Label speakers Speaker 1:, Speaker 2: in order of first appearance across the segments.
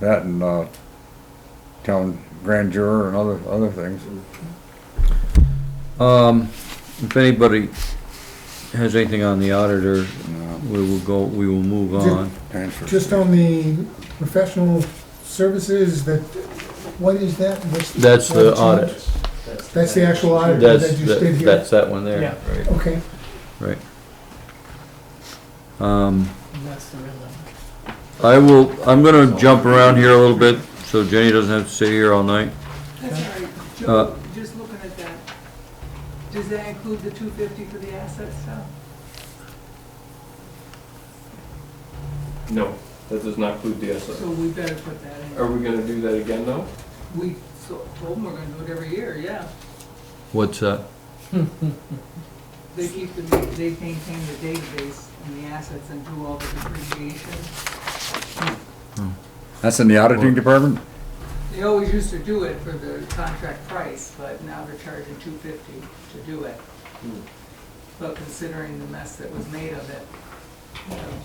Speaker 1: that and, uh, town grand juror and other, other things.
Speaker 2: Um, if anybody has anything on the auditor,
Speaker 1: No,
Speaker 2: we will go, we will move on.
Speaker 1: transfer.
Speaker 3: Just on the professional services, that, what is that? What's
Speaker 2: That's the audit.
Speaker 3: That's the actual audit
Speaker 2: That's,
Speaker 3: that you
Speaker 2: that-
Speaker 3: did here?
Speaker 2: that's that one there,
Speaker 4: Yeah.
Speaker 2: right?
Speaker 3: Okay,
Speaker 2: Um,
Speaker 4: That's the real one.
Speaker 2: I will, I'm gonna jump around here a little bit, so Jenny doesn't have to sit here all night.
Speaker 5: That's all
Speaker 2: Uh,
Speaker 5: right. Joe, just looking at that, does that include the two fifty for the asset stuff?
Speaker 6: No, that does not include the
Speaker 5: So
Speaker 6: SR.
Speaker 5: we better put that
Speaker 6: Are
Speaker 5: in.
Speaker 6: we gonna do that again though?
Speaker 5: We so- told them we're gonna do it every year, yeah.
Speaker 2: What's that?
Speaker 5: They keep the, they maintain the database and the assets and do all the depreciation.
Speaker 1: That's in the auditing department?
Speaker 5: They always used to do it for the contract price, but now they're charging two fifty to do it.
Speaker 6: Hmm.
Speaker 5: But considering the mess that was made of it, you know,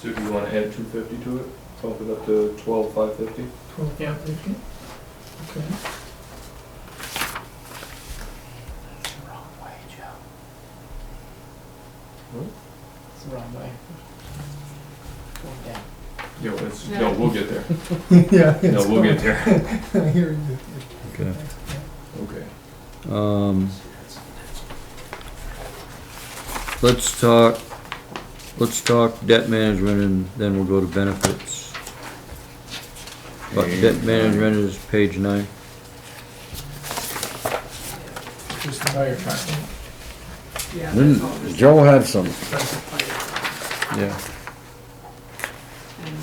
Speaker 6: So do you wanna add two fifty to it, bump it up to twelve five fifty?
Speaker 3: twelve,
Speaker 4: Yeah.
Speaker 3: fifty. Okay.
Speaker 4: That's the wrong way, Joe.
Speaker 6: What?
Speaker 4: It's the wrong way. Going down.
Speaker 6: Yeah, well, it's, no, we'll get there.
Speaker 3: Yeah.
Speaker 6: No, we'll get there.
Speaker 3: I hear you.
Speaker 2: Okay.
Speaker 6: Okay.
Speaker 2: Um, let's talk, let's talk debt management and then we'll go to benefits. But debt management is page nine.
Speaker 4: Just the fire truck.
Speaker 5: yeah. that's all
Speaker 1: Didn't,
Speaker 5: this-
Speaker 1: Joe had some,
Speaker 5: that's the fire.
Speaker 2: Yeah.
Speaker 5: And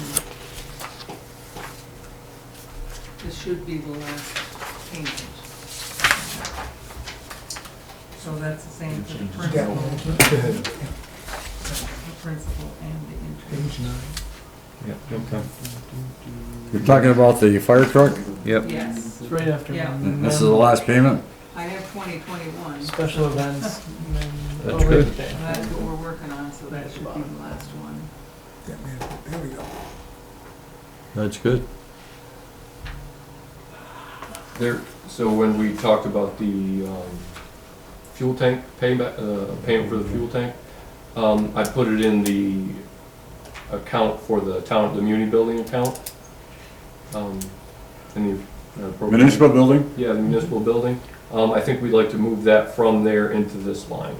Speaker 5: This should be the last payment. So that's the same for the
Speaker 3: Debt
Speaker 5: principal,
Speaker 3: management, go ahead.
Speaker 5: the principal and the interest.
Speaker 3: page nine.
Speaker 2: Yeah, okay.
Speaker 1: you're talking about the fire truck?
Speaker 2: Yep,
Speaker 5: Yes,
Speaker 4: It's right after.
Speaker 5: Yeah.
Speaker 1: Mm-hmm. This is the last payment?
Speaker 5: I have twenty twenty-one,
Speaker 4: Special events. and then-
Speaker 2: That's
Speaker 4: oh,
Speaker 2: good.
Speaker 4: wait, okay.
Speaker 5: that's what we're working on, so that should be the last one.
Speaker 3: Debt management, there we go.
Speaker 2: that's good.
Speaker 6: There, so when we talked about the, um, fuel tank payback, uh, payment for the fuel tank, um, I put it in the account for the town, the muni building account. Um, in the. appropriate-
Speaker 1: Municipal building?
Speaker 6: Yeah, the municipal building. Um, I think we'd like to move that from there into this line.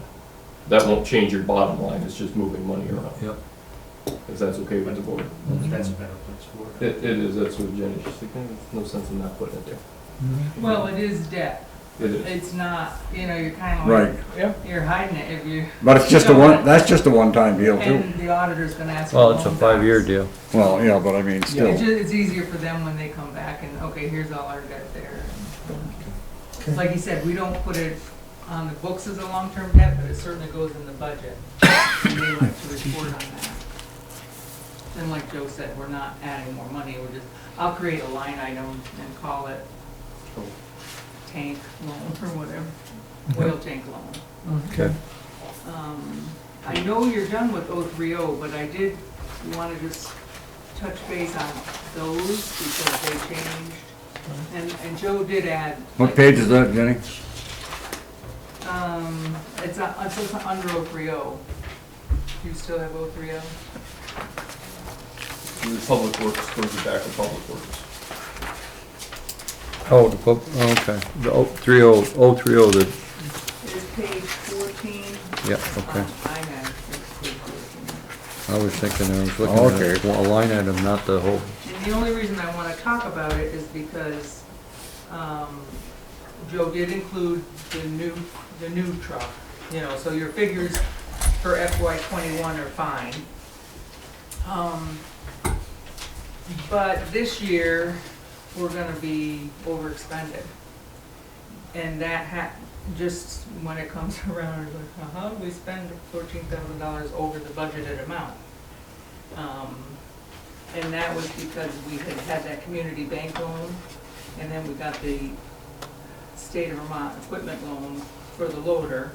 Speaker 6: That won't change your bottom line, it's just moving money around,
Speaker 2: Yep.
Speaker 6: if that's okay with the board.
Speaker 7: That's a better place for it.
Speaker 6: It, it is, that's what Jenny, she's thinking, there's no sense in not putting it there.
Speaker 5: Well, it is debt,
Speaker 6: It is.
Speaker 5: it's not, you know, you're kinda
Speaker 1: Right,
Speaker 5: like, you're hiding it if you,
Speaker 1: but it's just a one, that's just a one-time deal too.
Speaker 5: and the auditor's gonna ask for
Speaker 2: Well, it's a
Speaker 5: loan
Speaker 2: five-year
Speaker 5: docs.
Speaker 2: deal.
Speaker 1: Well, yeah, but I mean,
Speaker 5: It's
Speaker 1: still,
Speaker 5: ju- it's easier for them when they come back and, okay, here's all our debt there.
Speaker 3: Okay.
Speaker 5: Like you said, we don't put it on the books as a long-term debt, but it certainly goes in the budget. And they like to report on that. And like Joe said, we're not adding more money, we're just, I'll create a line item and call it
Speaker 6: Cool.
Speaker 5: tank loan or whatever, oil tank loan.
Speaker 3: Okay.
Speaker 5: Um, I know you're done with O three O, but I did want to just touch base on those because they changed. And, and Joe did add.
Speaker 1: what
Speaker 5: like,
Speaker 1: page is that, Jenny?
Speaker 5: Um, it's, uh, it's just under O three O. Do you still have O three O?
Speaker 6: The public works goes back to public works.
Speaker 2: Oh, the, pub- oh, okay, the oh, three oh, oh, three oh, the,
Speaker 5: It is page fourteen.
Speaker 2: yeah, okay.
Speaker 5: Um, I have. it's page 14.
Speaker 2: I was thinking, I was
Speaker 1: Oh,
Speaker 2: looking at
Speaker 1: okay.
Speaker 2: a line item, not the whole.
Speaker 5: And the only reason I want to talk about it is because um, Joe did include the new, the new truck, you know, so your figures for FY '21 are fine. Um, But this year, we're going to be overexpended. And that ha, just when it comes around, it's like, uh-huh, we spend $14,000 over the budgeted amount. Um, and that was because we had had that community bank loan, and then we got the state of Vermont equipment loan for the loader.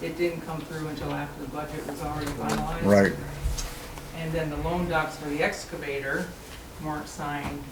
Speaker 5: It didn't come through until after the budget was already finalized.
Speaker 1: Right.
Speaker 5: And then the loan docs for the excavator weren't signed